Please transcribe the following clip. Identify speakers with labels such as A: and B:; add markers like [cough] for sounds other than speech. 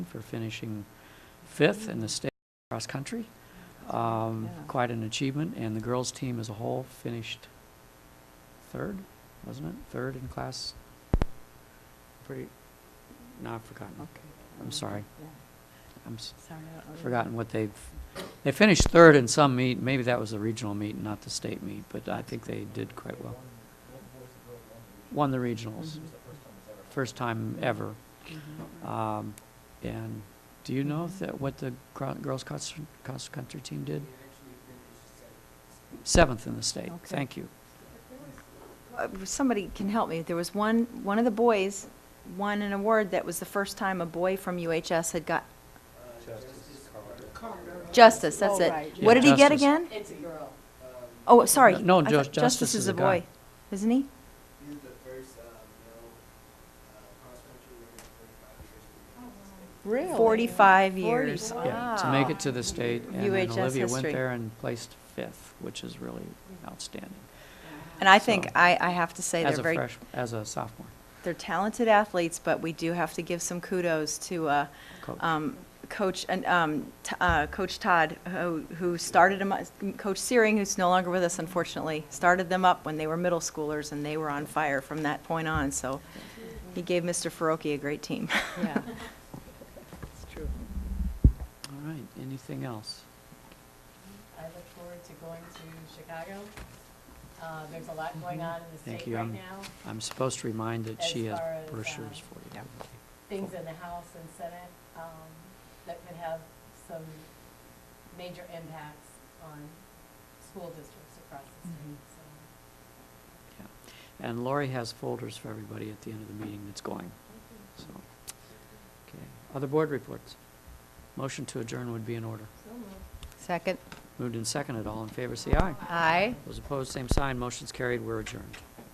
A: for finishing fifth in the state cross-country. Um,
B: Yeah.
A: Quite an achievement, and the girls' team as a whole finished third, wasn't it? Third in class, pretty, no, I've forgotten.
B: Okay.
A: I'm sorry. I'm s-
B: Sorry.
A: forgotten what they've, they finished third in some meet, maybe that was the regional meet, not the state meet, but I think they did quite well. Won the regionals,
B: Mm-hmm.
A: first time ever. Um, And do you know if
B: Mm-hmm.
A: that, what the gro- girls' cross, cross-country team did? Seventh in the state,
B: Okay.
A: thank you.
B: Uh, Somebody can help me. There was one, one of the boys won an award that was the first time a boy from UHS had got. Justice, that's
C: Oh,
B: it.
C: right,
A: yeah.
B: What did he get
A: Justice.
B: again?
C: It's a girl.
B: Oh, sorry.
A: No,
B: I thought
A: Jus- Justice is
B: is
A: a
B: a
A: guy.
B: boy, isn't he?
D: He's the first, um, male, uh, cross-country runner in forty-five
C: Really?
D: years.
B: 45 years.
A: Yeah, to make it to
B: Wow.
A: the state, and then
B: UHS
A: Olivia went
B: history.
A: there and placed fifth, which is really outstanding.
B: And I think,
A: So-
B: I, I have to say,
A: As
B: they're
A: a
B: very
A: fresh, as a sophomore
B: They're talented athletes, but we do have to give some kudos to uh,
A: coach.
B: um, Coach, and, um, T- uh, Coach Todd, who who started them, Coach Searing, who's no longer with us unfortunately, started them up when they were middle schoolers, and they were on fire from that point on, so he gave Mr. Faroki a great
C: [laughs]
B: team. [laughs]
C: Yeah. It's true.
A: All right, anything else?
C: I look forward to going to Chicago. Uh, There's a lot going on in the
A: Mm-hmm. Thank
C: state
A: you.
C: right
A: I'm,
C: now.
A: I'm supposed to remind that
C: as
A: she has
C: far as, uh,
A: brochures for you.
C: Things in the House and Senate um, that could have some major impacts on school districts across the
B: Mm-hmm.
C: state. So
A: Yeah. And Lori has folders for everybody at the end of the meeting that's going, so. Okay, other board reports? Motion to adjourn would be in order.
B: Second.
A: Moved and seconded, all in favor, say aye.
B: Aye.
A: Those opposed, same sign, motion's carried, we're adjourned.